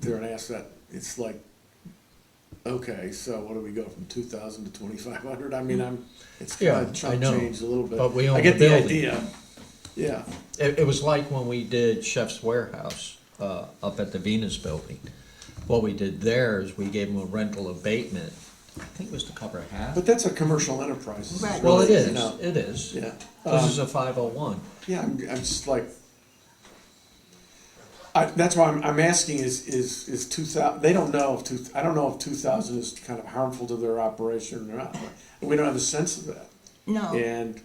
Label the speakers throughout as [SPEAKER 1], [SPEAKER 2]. [SPEAKER 1] there and ask that, it's like, okay, so what do we go from two thousand to twenty-five hundred? I mean, I'm, it's
[SPEAKER 2] Yeah,
[SPEAKER 1] kind of
[SPEAKER 2] I
[SPEAKER 1] chunk
[SPEAKER 2] know,
[SPEAKER 1] changed a little bit.
[SPEAKER 2] but we
[SPEAKER 1] I
[SPEAKER 2] own
[SPEAKER 1] get
[SPEAKER 2] the building.
[SPEAKER 1] idea. Yeah,
[SPEAKER 2] It, it was like when we did Chef's Warehouse uh, up at the Venus Building. What we did there is we gave them a rental abatement. I think it was to cover half.
[SPEAKER 1] but that's a commercial enterprise. This is
[SPEAKER 3] Right.
[SPEAKER 2] well, it
[SPEAKER 1] really, you
[SPEAKER 2] is.
[SPEAKER 1] know,
[SPEAKER 2] It is.
[SPEAKER 1] Yeah.
[SPEAKER 2] This
[SPEAKER 1] Um,
[SPEAKER 2] is a 501.
[SPEAKER 1] Yeah, I'm, I'm just like, I, that's why I'm, I'm asking is, is, is two thousand, they don't know if two, I don't know if two thousand is kind of harmful to their operation or not. We don't have a sense of that.
[SPEAKER 3] No,
[SPEAKER 1] And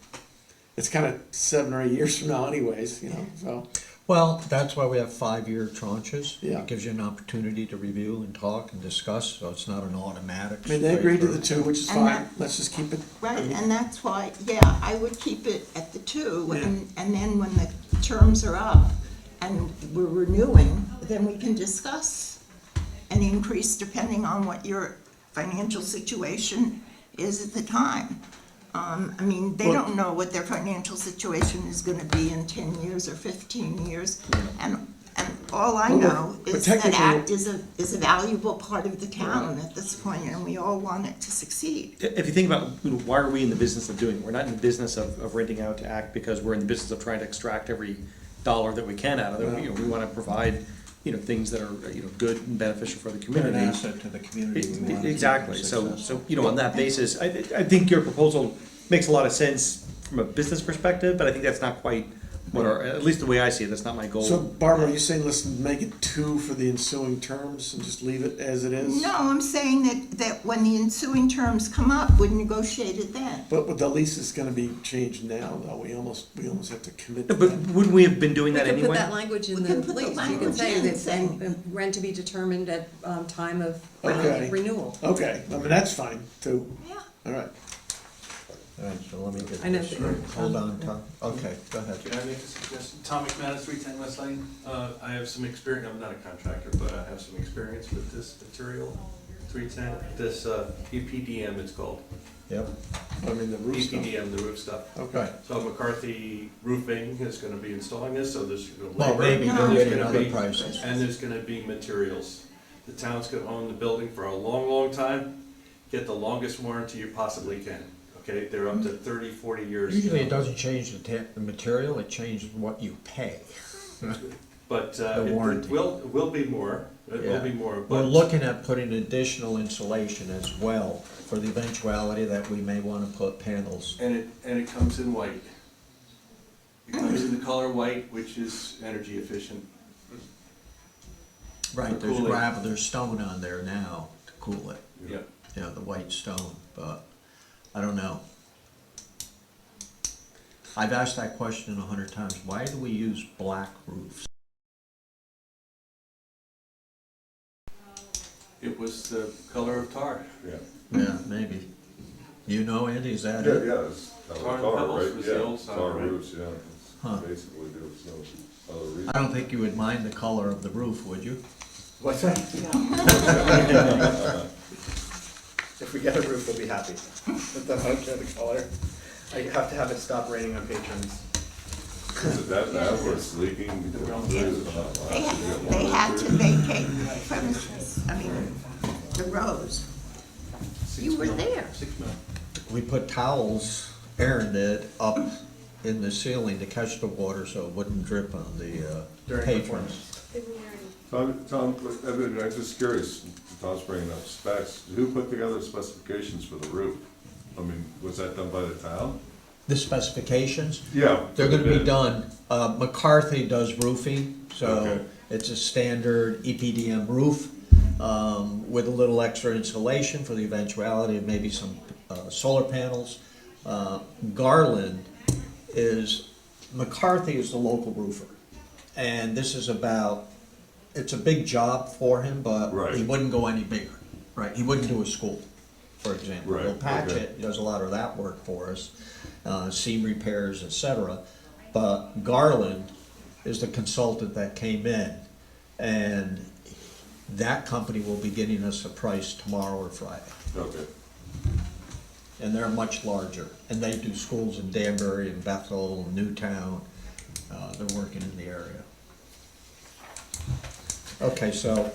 [SPEAKER 1] it's kind of seven or eight years from now anyways, you know, so,
[SPEAKER 2] Well, that's why we have five-year tranches.
[SPEAKER 1] Yeah.
[SPEAKER 2] It gives you an opportunity to review and talk and discuss, so it's not an automatic.
[SPEAKER 1] I mean, they
[SPEAKER 2] straight
[SPEAKER 1] agreed to
[SPEAKER 2] through.
[SPEAKER 1] the two, which is
[SPEAKER 3] And
[SPEAKER 1] fine,
[SPEAKER 3] that-
[SPEAKER 1] let's just keep it.
[SPEAKER 3] right, and that's why, yeah, I would keep it at the two,
[SPEAKER 1] Yeah.
[SPEAKER 3] and, and then when the terms are up and we're renewing, then we can discuss an increase depending on what your financial situation is at the time. Um, I mean, they
[SPEAKER 1] Well-
[SPEAKER 3] don't know what their financial situation is gonna be in ten years or fifteen years, and, and all I
[SPEAKER 1] Well,
[SPEAKER 3] know
[SPEAKER 1] but- but
[SPEAKER 3] is that
[SPEAKER 1] technically-
[SPEAKER 3] ACT is a, is a valuable part of the town at this point, and we all want it to succeed.
[SPEAKER 4] If you think about, you know, why are we in the business of doing, it? we're not in the business of, of renting out to act because we're in the business of trying to extract every dollar that we can out of it. You know, we wanna provide, you know, things that are, you know, good and beneficial for the
[SPEAKER 2] They're
[SPEAKER 4] community.
[SPEAKER 2] an asset to the community. We want
[SPEAKER 4] It-
[SPEAKER 2] to
[SPEAKER 4] it-
[SPEAKER 2] see
[SPEAKER 4] Exactly, so,
[SPEAKER 2] success.
[SPEAKER 4] so, you know, on that basis, I, I think your proposal makes a lot of sense from a business perspective, but I think that's not quite what our, at least the way I see it, that's not my goal.
[SPEAKER 1] So Barbara, are you saying, listen, make it two for the ensuing terms and just leave it as it is?
[SPEAKER 3] No, I'm saying that, that when the ensuing terms come up, we negotiate it then.
[SPEAKER 1] But with the lease is gonna be changed now, though, we almost, we almost have to commit to
[SPEAKER 4] But
[SPEAKER 1] that.
[SPEAKER 4] wouldn't we have been doing
[SPEAKER 5] We
[SPEAKER 4] that
[SPEAKER 5] can put
[SPEAKER 4] anyway?
[SPEAKER 5] that language in
[SPEAKER 3] We
[SPEAKER 5] the
[SPEAKER 3] can put the
[SPEAKER 5] lease, you can
[SPEAKER 3] language
[SPEAKER 5] say
[SPEAKER 3] in
[SPEAKER 5] that,
[SPEAKER 3] saying-
[SPEAKER 5] and and rent to be determined at, um, time of uh,
[SPEAKER 1] Okay.
[SPEAKER 5] renewal.
[SPEAKER 1] Okay, I mean, that's fine, too,
[SPEAKER 3] Yeah.
[SPEAKER 1] all right.
[SPEAKER 2] All right, so let me get
[SPEAKER 5] I know
[SPEAKER 2] this
[SPEAKER 5] that you're-
[SPEAKER 2] straight. Hold
[SPEAKER 1] um,
[SPEAKER 2] on, Tom. Okay, go ahead.
[SPEAKER 6] Can I make a suggestion? Tom McManus, three ten West Lane. Uh, I have some experience, I'm not a contractor, but I have some experience with this material, three ten, this, uh, EPDM it's called. E
[SPEAKER 2] Yep.
[SPEAKER 1] I mean, the roof stuff.
[SPEAKER 6] EPDM, the roof stuff.
[SPEAKER 2] Okay.
[SPEAKER 6] So McCarthy Roofing is gonna be installing this, so there's gonna be
[SPEAKER 2] Well,
[SPEAKER 6] labor.
[SPEAKER 2] maybe
[SPEAKER 3] they're
[SPEAKER 6] there's
[SPEAKER 2] getting
[SPEAKER 6] gonna
[SPEAKER 2] other
[SPEAKER 6] be-
[SPEAKER 2] prices.
[SPEAKER 6] And there's gonna be materials. The town's gonna own the building for a long, long time. Get the longest warranty you possibly can, okay? They're up to 30, 40 years.
[SPEAKER 2] Usually it
[SPEAKER 6] now.
[SPEAKER 2] doesn't change the ta- the material, it changes what you pay.
[SPEAKER 6] But uh,
[SPEAKER 2] The
[SPEAKER 6] it-
[SPEAKER 2] warranty.
[SPEAKER 6] it will, it will be more, it will be
[SPEAKER 2] Yeah.
[SPEAKER 6] more,
[SPEAKER 2] We're
[SPEAKER 6] but.
[SPEAKER 2] looking at putting additional insulation as well for the eventuality that we may wanna put panels.
[SPEAKER 6] And it, and it comes in white. It comes in the color white, which is energy efficient.
[SPEAKER 2] Right, there's
[SPEAKER 6] Cool it.
[SPEAKER 2] gravel, there's stone on there now to cool it,
[SPEAKER 6] Yeah.
[SPEAKER 2] you know, the white stone, but I don't know. I've asked that question a hundred times, why do we use black roofs?
[SPEAKER 6] It was the color of tar.
[SPEAKER 7] Yeah,
[SPEAKER 2] Yeah, maybe. You know, Andy, is that
[SPEAKER 7] yeah,
[SPEAKER 2] it?
[SPEAKER 7] yeah, it's kind of
[SPEAKER 6] Tar and
[SPEAKER 7] tar,
[SPEAKER 6] pebbles
[SPEAKER 7] right?
[SPEAKER 6] was
[SPEAKER 7] Yeah,
[SPEAKER 6] the old style,
[SPEAKER 7] tar
[SPEAKER 6] right?
[SPEAKER 7] roofs, yeah.
[SPEAKER 2] Huh.
[SPEAKER 7] It's Basically, there was no other reason.
[SPEAKER 2] I don't think you would mind the color of the roof, would you?
[SPEAKER 8] What's that? If we get a roof, we'll be happy. But then I don't care the color. I have to have it stop raining on patrons.
[SPEAKER 7] Is it that bad where it's leaking?
[SPEAKER 3] They, had- they had to vacate the premises, I mean, the rows. You were there.
[SPEAKER 6] Six mil.
[SPEAKER 2] We put towels, Aaron did, up in the ceiling to catch the water so it wouldn't drip on the uh,
[SPEAKER 8] During
[SPEAKER 2] patrons.
[SPEAKER 7] Tom, Tom, I mean, I'm just curious, Tom's bringing up specs, who put together specifications for the roof? I mean, was that done by the town?
[SPEAKER 2] The specifications,
[SPEAKER 7] Yeah.
[SPEAKER 2] they're gonna be done, uh, McCarthy does roofing, so
[SPEAKER 7] Okay.
[SPEAKER 2] it's a standard E EPDM roof um, with a little extra insulation for the eventuality of maybe some uh, solar panels. Uh, Garland is, McCarthy is the local roofer. And this is about, it's a big job for him, but he
[SPEAKER 7] Right.
[SPEAKER 2] wouldn't go any bigger, right? He wouldn't do a school, for example.
[SPEAKER 7] Right,
[SPEAKER 2] He'll patch
[SPEAKER 7] okay.
[SPEAKER 2] it, he does a lot of that work for us, uh, seam repairs, et cetera. But Garland is the consultant that came in, and that company will be getting us a price tomorrow or Friday.
[SPEAKER 7] Okay,
[SPEAKER 2] And they're much larger, and they do schools in Danbury and Bethel, and Newtown, uh, they're working in the area. Okay, so